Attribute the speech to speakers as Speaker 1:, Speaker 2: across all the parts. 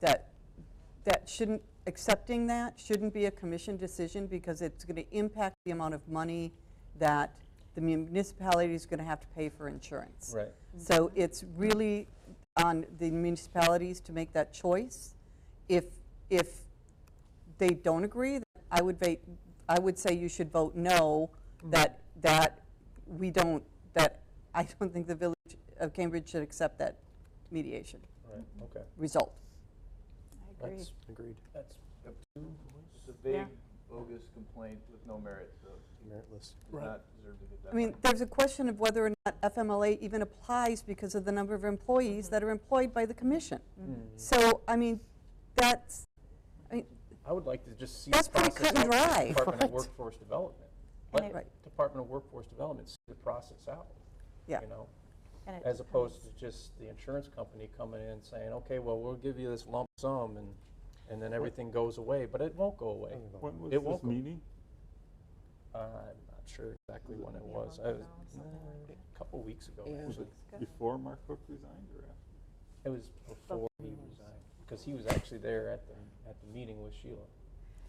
Speaker 1: that, that shouldn't, accepting that shouldn't be a commission decision because it's going to impact the amount of money that the municipality is going to have to pay for insurance.
Speaker 2: Right.
Speaker 1: So it's really on the municipalities to make that choice. If, if they don't agree, then I would va, I would say you should vote no, that, that we don't, that I don't think the Village of Cambridge should accept that mediation
Speaker 2: Right, okay.
Speaker 1: result.
Speaker 3: I agree.
Speaker 2: That's-
Speaker 4: Agreed.
Speaker 2: That's,
Speaker 5: It's a
Speaker 3: Yeah.
Speaker 5: vague, bogus complaint with no merit, so
Speaker 4: Meritless.
Speaker 5: it does not deserve to get that.
Speaker 1: I mean,
Speaker 5: money.
Speaker 1: there's a question of whether or not FMLA even applies because of the number of employees that are employed by the commission.
Speaker 2: Mm.
Speaker 1: So, I mean, that's, I mean,
Speaker 2: I would like to just see.
Speaker 1: That's
Speaker 2: the
Speaker 1: pretty
Speaker 2: process
Speaker 1: cut and
Speaker 2: out for
Speaker 1: dry.
Speaker 2: the Department of
Speaker 3: Right.
Speaker 2: Workforce Development.
Speaker 3: And
Speaker 2: Let
Speaker 1: it- Right.
Speaker 2: Department of Workforce Development see the process out.
Speaker 1: Yeah.
Speaker 2: You know,
Speaker 3: And it
Speaker 2: as opposed
Speaker 3: becomes-
Speaker 2: to just the insurance company coming in and saying, okay, well, we'll give you this lump sum and, and then everything goes away, but it won't go away.
Speaker 4: Well,
Speaker 6: When was
Speaker 2: It won't
Speaker 6: this
Speaker 2: go-
Speaker 6: meeting?
Speaker 2: Uh, I'm not sure exactly when it
Speaker 3: Yeah,
Speaker 2: was.
Speaker 3: month
Speaker 2: I was, Mm,
Speaker 3: ago, something like that.
Speaker 2: a couple weeks ago,
Speaker 4: Yeah.
Speaker 6: Was
Speaker 2: actually.
Speaker 6: it
Speaker 3: good.
Speaker 6: before Mark Cook resigned or after?
Speaker 2: It was before he resigned, because he was actually there at the, at the meeting with Sheila.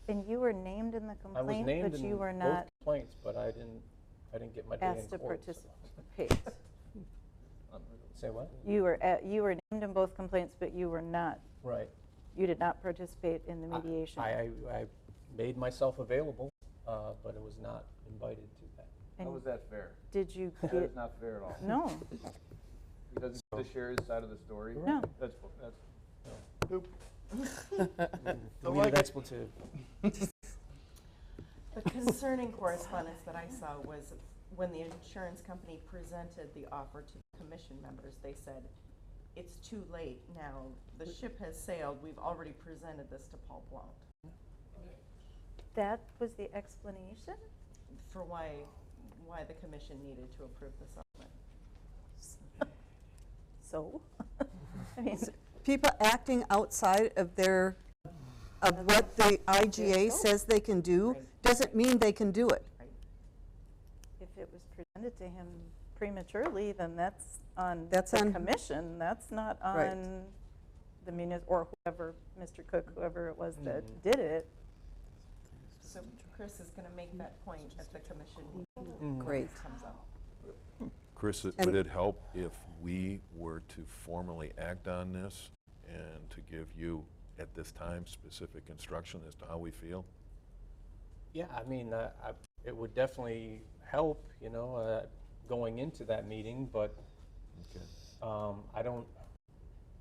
Speaker 3: And you were named in the
Speaker 2: I was
Speaker 3: complaint,
Speaker 2: named
Speaker 3: but
Speaker 2: in
Speaker 3: you were
Speaker 2: both
Speaker 3: not
Speaker 2: complaints, but I didn't, I didn't get my day in
Speaker 3: asked to
Speaker 2: court. so-
Speaker 3: participate.
Speaker 5: Unreal.
Speaker 2: Say what?
Speaker 3: You were, at- you were named in both complaints, but you were not,
Speaker 2: Right.
Speaker 3: you did not participate in the
Speaker 2: I-
Speaker 3: mediation.
Speaker 2: I, I I made myself available, uh, but I was not invited to that.
Speaker 5: How
Speaker 3: And
Speaker 5: is that fair?
Speaker 3: did you
Speaker 5: That
Speaker 3: get,
Speaker 5: is not fair at all.
Speaker 3: no,
Speaker 5: He doesn't get to share his side of the story.
Speaker 3: No.
Speaker 5: That's, bu- that's,
Speaker 2: We need an expletive.
Speaker 7: The concerning correspondence that I saw was when the insurance company presented the offer to the commission members, they said, it's too late now. The ship has sailed. We've already presented this to Paul Blount
Speaker 3: that was the explanation?
Speaker 7: for why, why the commission needed to approve the settlement.
Speaker 3: So, I mean,
Speaker 1: people acting outside of their, of what the IGA says they can do,
Speaker 7: Right.
Speaker 1: doesn't mean they can do it.
Speaker 7: Right.
Speaker 3: if it was presented to him prematurely, then that's on
Speaker 1: That's
Speaker 3: the
Speaker 1: on-
Speaker 3: commission, that's not
Speaker 1: Right.
Speaker 3: on the munis, or whoever, Mr. Cook, whoever it was that did it.
Speaker 7: So Chris is going to make that point at the commission meeting
Speaker 2: Mm.
Speaker 1: Great.
Speaker 7: that comes up.
Speaker 8: Chris, it-
Speaker 1: And-
Speaker 8: would it help if we were to formally act on this and to give you, at this time, specific instruction as to how we feel?
Speaker 2: Yeah, I mean, uh, I, it would definitely help, you know, uh, going into that meeting, but
Speaker 8: Okay.
Speaker 2: um, I don't,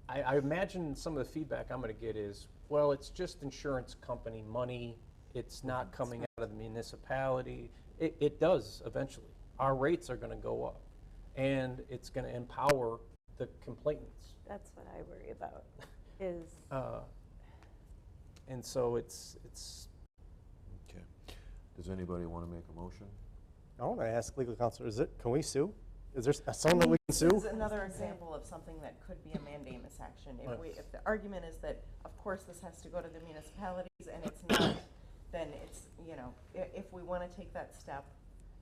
Speaker 2: I, I imagine some of the feedback I'm going to get is, well, it's just insurance company money. It's not coming out of the municipality. It, it does eventually. Our rates are going to go up, and it's going to empower the complainants.
Speaker 3: That's what I worry about, is,
Speaker 2: Uh, and so it's, it's,
Speaker 8: Okay. Does anybody want to make a motion?
Speaker 4: I want to ask legal counsel, is it, can we sue? Is there s- someone that we can
Speaker 7: This is
Speaker 4: sue?
Speaker 7: another example of something that could be a mandamus action. If we, if the argument is that, of course, this has to go to the municipalities and it's not, then it's, you know, i- if we want to take that step,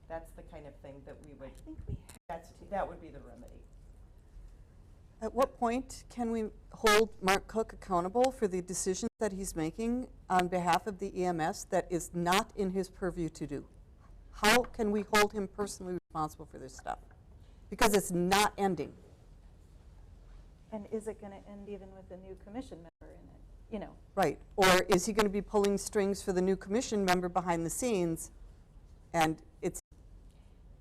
Speaker 7: that's the kind of thing that we would,
Speaker 3: I think we
Speaker 7: that's, that would be the remedy.
Speaker 1: At what point can we hold Mark Cook accountable for the decisions that he's making on behalf of the EMS that is not in his purview to do? How can we hold him personally responsible for this stuff? Because it's not ending.
Speaker 3: And is it going to end even with a new commission member in it? You know,
Speaker 1: Right, or is he going to be pulling strings for the new commission member behind the scenes, and it's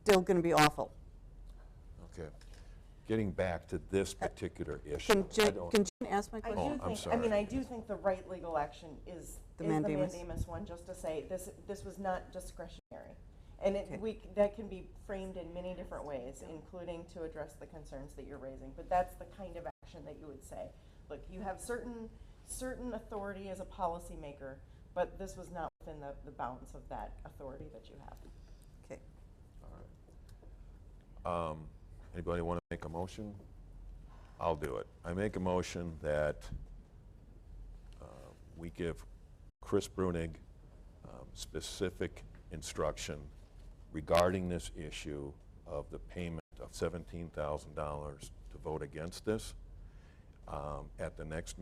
Speaker 1: still going to be awful?
Speaker 8: Okay. Getting back to this particular issue.
Speaker 1: Uh, Can
Speaker 8: I
Speaker 1: Jen,
Speaker 8: don't-
Speaker 1: can Jen ask my
Speaker 7: I
Speaker 1: question?
Speaker 8: Oh,
Speaker 7: do
Speaker 8: I'm
Speaker 7: think, I mean,
Speaker 8: sorry.
Speaker 7: I do think the right legal action is, is
Speaker 1: The
Speaker 7: the
Speaker 1: mandamus.
Speaker 7: mandamus one, just to say, this, this was not discretionary. And
Speaker 1: Okay.
Speaker 7: it, we, c- that can be framed in many different ways, including to address the concerns that you're raising, but that's the kind of action that you would say. Look, you have certain, certain authority as a policymaker, but this was not within the, the bounds of that authority that you have.
Speaker 1: Okay.
Speaker 8: Um, Anybody want to make a motion? I'll do it. I make a motion that uh, we give Chris Brunig um, specific instruction regarding this issue of the payment of $17,000 to vote against this um, at the next